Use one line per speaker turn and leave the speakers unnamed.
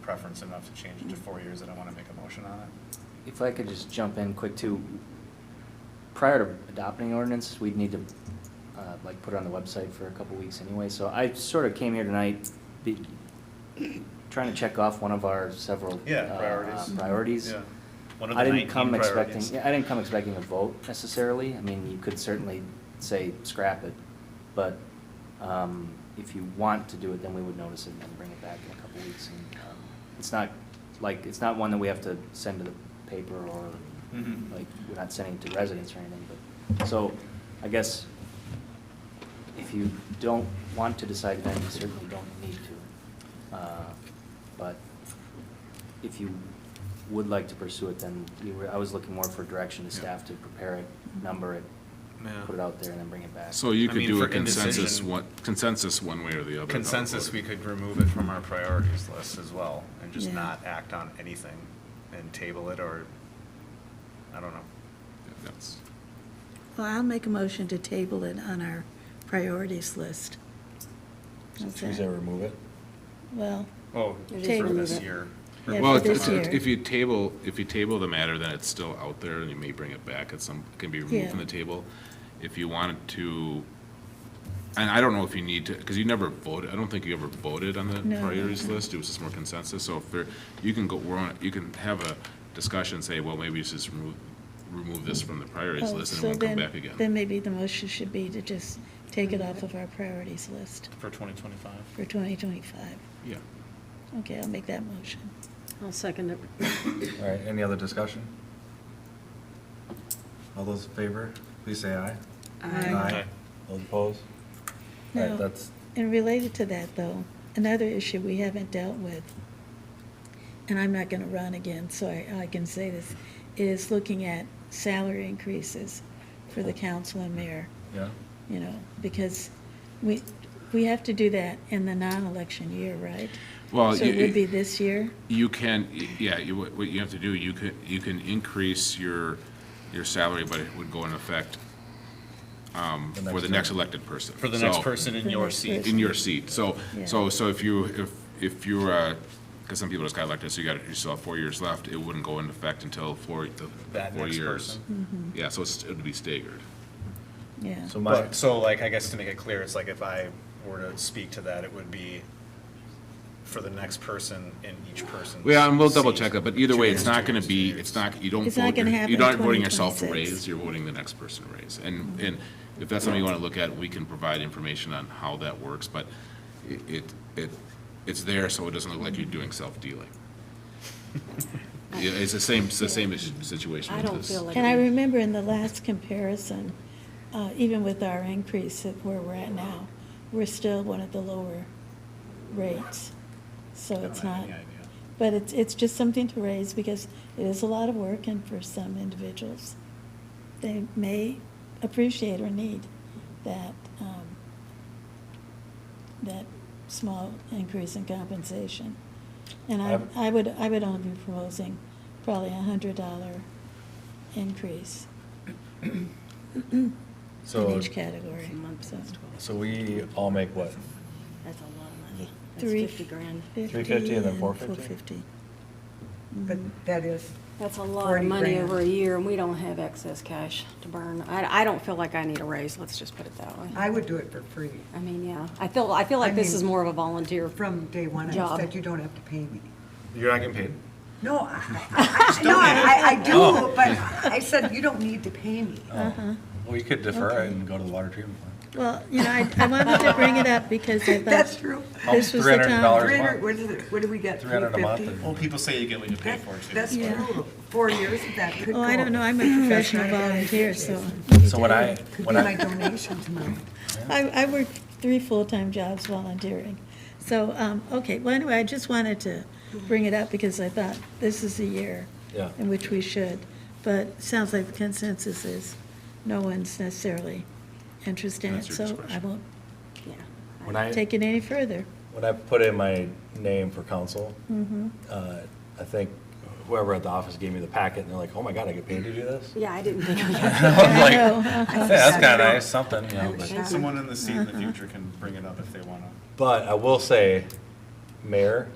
preference enough to change it to four years, I don't want to make a motion on it.
If I could just jump in quick too, prior to adopting ordinance, we'd need to, uh, like, put it on the website for a couple weeks anyway, so I sort of came here tonight, be, trying to check off one of our several.
Yeah,
uh,
priorities.
Priorities.
Yeah. One of the
I didn't
19
come expecting,
priorities.
yeah, I didn't come expecting a vote necessarily, I mean, you could certainly say scrap it, but, um, if you want to do it, then we would notice it and then bring it back in a couple weeks, and, um, it's not, like, it's not one that we have to send to the paper or,
Mhm.
like, we're not sending it to residents or anything, but, so, I guess, if you don't want to decide then, you certainly don't need to. Uh, But if you would like to pursue it, then you were, I was looking more for direction to
Yeah.
staff to prepare it, number it,
Yeah.
put it out there, and then bring it back.
So you
I
could
mean,
do
for
a consensus,
indecision-
one, consensus one way or the other. about
Consensus, we
voting.
could remove it from our priorities list as well, and just
Yeah.
not act on anything, and table it, or, I don't know.
Yeah, that's-
Well, I'll make a motion to table it on our priorities list. How's
Should we
that?
say uh, remove it?
Well,
Oh,
It
for
is remove
this
it.
year.
Yeah,
Well,
for
it's-
this
it's- it's-
year.
if you table, if you table the matter, then it's still out there and you may bring it back at some, can be removed from
Yeah.
the table. If you wanted to, and I don't know if you need to, because you never voted, I don't think you ever voted on the
No.
priorities list. It was just more consensus. So if there, you can go, we're on, you can have a discussion, say, well, maybe you should just remove, remove this from the priorities
oh,
list and it
so
won't come
then,
back again.
then maybe the motion should be to just take it off of our priorities list
For twenty twenty-five.
for 2025.
Yeah.
Okay, I'll make that motion.
I'll second it.
All right, any other discussion? All those in favor, please say aye.
Aye.
Aye.
Those opposed? All
No.
right, that's,
And related to that, though, another issue we haven't dealt with, and I'm not gonna run again, so I, I can say this, is looking at salary increases for
Oh.
the council and mayor,
yeah,
you know, because we, we have to do that in the non-election year, right?
Well,
So it
you-
would be this year?
You can, yeah, you, what what you have to do, you could, you can increase your, your salary, but it would go in effect um,
The
for the
next
next
term.
elected person.
For the next
So-
person in
The
your
next
seat.
In your seat. So,
Yeah.
so, so if you, if, if you're, because some people just got elected, so you got, you still have four years left, it wouldn't go into effect until four, the
That
four
next
years.
person.
Mm-hmm.
Yeah, so it's, it'd be staggered.
Yeah.
so my,
But, so like, I guess to make it clear, it's like if I were to speak to that, it would be for the next person in each person's.
Well, Yeah, and we'll double
seat.
check that, but either way, it's not gonna
Two
be,
years.
it's not, you don't
It's not
vote, your-
gonna happen
you're not
in
voting yourself a
2026.
raise, you're voting the next person a raise. And, and if that's something you wanna look at, we can provide information on how that works, but i- it, it, it's there, so it doesn't look like you're doing self-dealing. Yeah, It's the same, it's the same issue- situation
I
with this.
don't feel like-
And I remember in the last comparison, uh, even with our increase of where we're at now, we're still one of the lower rates.
I
So
don't
it's
have
not,
any idea.
but it's, it's just something to raise because it is a lot of work and for some individuals, they may appreciate or need that, um, that small increase in compensation. And I,
I've-
I would, I would only be proposing probably a hundred dollar increase in
so,
each category.
It's a month,
So
that's 12.
so we all make what?
That's a lot of money. That's
Three.
50 grand.
350 and then 450?
450.
But that is,
That's a lot of
40
money
grand.
over a year, and we don't have excess cash to burn. I, I don't feel like I need a raise, let's just put it that way.
I would do it for free.
I mean, yeah, I feel, I feel like
I
this
mean-
is more of a volunteer.
From day one, I
Job.
said, you don't have to pay me.
You're not getting paid?
No, I, I- I- no, I, I do, but I said, you don't need to pay me.
Uh-huh.
Um, Well, you could defer it and go to the water treatment plant.
Well, you know, I, I wanted to bring it up because I
That's
thought
true.
this was the
$300
time.
Three hundred, what is it, what do we get, three
Three hundred a month.
fifty?
Well, people say you get what you pay for too.
That's
Yeah.
true. Four years, that could go.
Oh, I don't know, I'm a professional volunteer, so.
or- So when I,
Could be
when
my
I,
donations money.
I, I work three full-time jobs volunteering. So, um, okay, well, anyway, I just wanted to bring it up because I thought this is the year
Yeah.
in which we should. But it sounds like the consensus is no one's necessarily interested in it,
That's your
so I
discretion.
won't
Yeah.
when I.
take it any further.
When I put in my name for council,
Mm-hmm.
uh, I think whoever at the office gave me the packet, and they're like, oh my God, I get paid to do this?
Yeah, I didn't think of
I
that.
was like,
know,
"Yeah, That's kind of nice, something, you know, but,
Uh-huh.
Someone in the seat in the future can bring it up if they wanna.
but I will say, mayor,